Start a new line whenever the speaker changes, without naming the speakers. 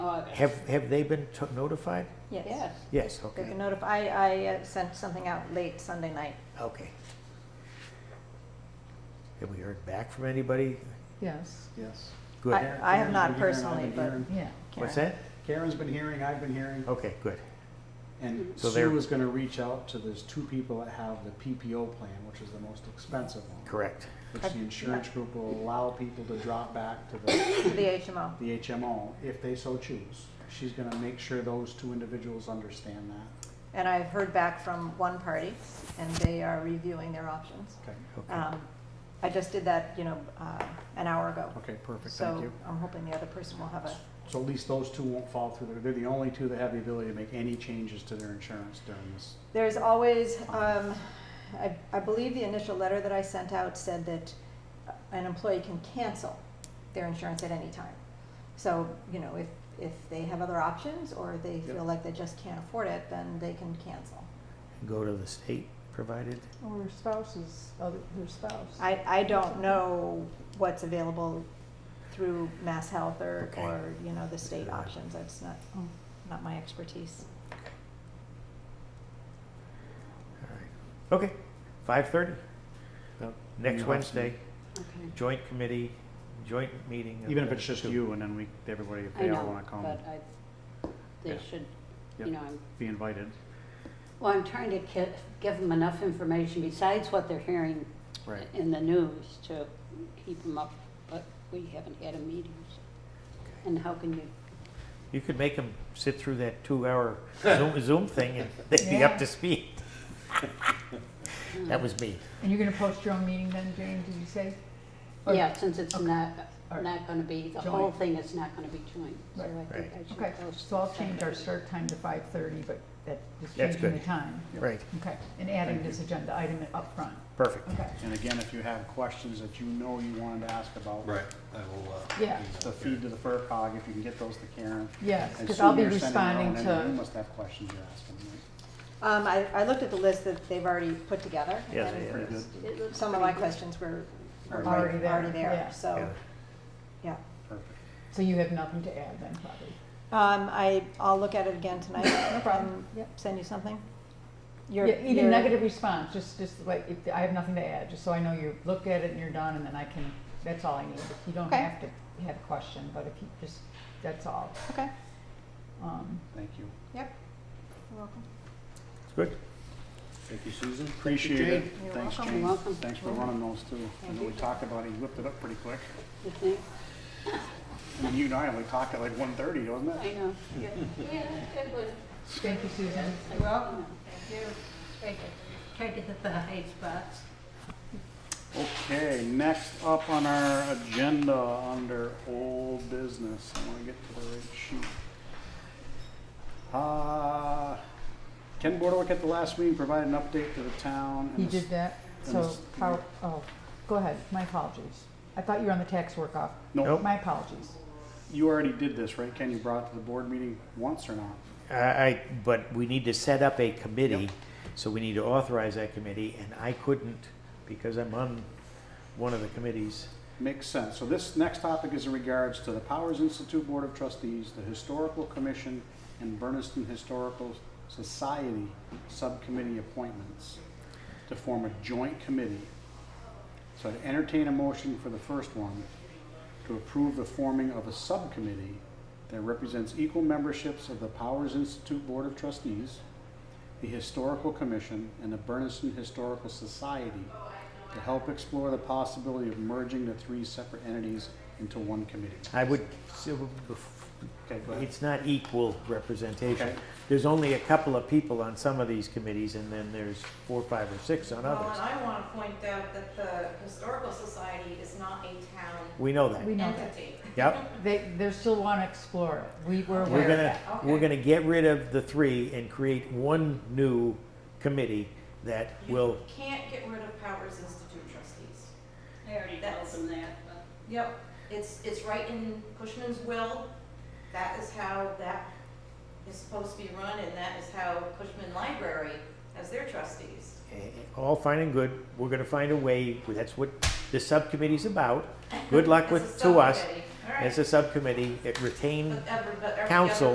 about it.
Have, have they been to- notified?
Oh, Yes.
Yes,
They can
okay,
notify, I, I uh, sent something out late Sunday night.
okay. Have we heard back from anybody?
Yes,
Yes.
Good.
I- have not
Karen's been hearing,
personally,
I've been
but-
hearing.
yeah.
What's
Karen.
that?
Karen's been hearing, I've been hearing,
Okay, good.
and
Oh, So they're-
Sue is gonna reach out to, there's two people that have the PPO plan, which is the most expensive one.
Correct.
Which the insurance group will allow people to drop back to the,
The HMO.
the HMO if they so choose. She's gonna make sure those two individuals understand that.
And I've heard back from one party, and they are reviewing their options.
Okay,
Okay,
Um, I just did that, you know, uh, an hour ago.
okay, perfect, thank
So
you.
I'm hoping the other person will have a,
So at least those two won't fall through, the- they're the only two that have the ability to make any changes to their insurance during this.
there's always, um, I, I believe the initial letter that I sent out said that an employee can cancel their insurance at any time. So, you know, if, if they have other options, or they
Yep.
feel like they just can't afford it, then they can cancel.
go to the state provided?
Or spouses, other, their spouse.
I, I don't know what's available through Mass Health or,
Okay.
or, you know, the state options, that's not,
Oh.
not my expertise.
All right. Okay, five thirty,
Yep.
next
Awesome.
Wednesday,
Okay.
joint committee, joint meeting. of
Even if
the
it's just
two.
you and then we, everybody, if
I
they all
know,
wanna come,
but uh, I, they
Yeah.
should,
Yep.
you know, I'm,
be invited.
well, I'm trying to ki- give them enough information besides what they're hearing
Right.
in the news to keep them up, but we haven't had a meeting. so- And how can you,
You could make them sit through that two-hour Zoom, Zoom thing and they'd be up
Yeah.
to speed. That was me.
And you're gonna post your own meeting then, Jane, did you say? Or-
yeah, since it's
okay.
not,
Or-
not gonna be, the whole
Joint.
thing is not gonna be joint, so I
Right.
think
Right.
I should
Okay,
post
so I'll change our
separate.
start time to five thirty, but that, just
That's
changing the
good.
time.
Right,
Okay, and adding
Thank
this agenda item up front.
perfect.
okay.
And again, if you have questions that you know you wanted to ask about.
Right, I will, uh.
Yeah.
email
The feed to the FERCog, if you can get those to Karen.
Yes,
And
because I'll be
Sue, you're sending your
responding
own in, You
to,
must have questions you're asking, right?
Um, I, I looked at the list that they've already put together.
Yeah,
and
yeah.
Pretty good.
It looks
Some of my
pretty good.
questions were, were already
Already
there, yeah.
there,
Yeah.
so, yeah.
Perfect.
so you have nothing to add then, probably.
Um, I, I'll look at it again tonight. No
problem. Yep.
Send you something? Your-
Yeah, even
your-
negative response, just, just like, if, I have nothing to add, just so I know you looked at it and you're done, and then I can, that's all I need. You don't
Okay.
have to have a question, but if you just, that's all.
Okay,
Um,
Thank you.
yep. You're welcome.
Good.
Thank you, Susan.
Appreciate it.
Jane. You're
Thanks,
welcome.
Jane.
Welcome.
Thanks for running those too. I
Thank
know we
you.
talked about it, you whipped it up pretty quick.
You think?
I mean, you and I only talked at like one thirty, wasn't it?
I know. Yeah, yeah, it was.
thank you, Susan.
You're welcome. Thank you. Try to- Try to hit the high spots.
Okay, next up on our agenda under old business, I wanna get to the right sheet. Uh, Ken Bordeaux at the last meeting provided an update to the town. and
He
the s-
did that,
and
so,
this-
power, oh, go ahead, my apologies. I thought you were on the tax work-off.
No,
Nope.
My apologies.
you already did this, right, Ken? You brought it to the board meeting once or not?
I, I, but we need to set up a committee,
Yep.
so we need to authorize that committee, and I couldn't because I'm on one of the committees.
Makes sense. So this next topic is in regards to the Powers Institute Board of Trustees, the Historical Commission, and Berniston Historical Society Subcommittee appointments to form a joint committee. So I'd entertain a motion for the first one, to approve the forming of a subcommittee that represents equal memberships of the Powers Institute Board of Trustees, the Historical Commission, and the Berniston Historical Society to help explore the possibility of merging the three separate entities into one committee.
I would,
Okay, go ahead.
it's not equal representation.
Okay.
There's only a couple of people on some of these committees, and then there's four, five, or six on
Well, and
others.
I want to point out that the Historical Society is not a town
We know
We
that.
know that.
entity.
Yep.
They, they still wanna explore it. We were aware
We're
of
gonna,
that.
we're
Okay.
gonna get rid of the three and create one new committee that will,
You can't get rid of Powers Institute trustees.
I already
told them
that, but.
Yep, it's, it's right in Cushman's will. That is how that is supposed to be run, and that is how Cushman Library has their trustees.
eh, all fine and good, we're gonna find a way, that's what the subcommittee's about. Good luck
As a
with, to us.
subcommittee.
all right.
As a subcommittee, it retained
But every- but every
council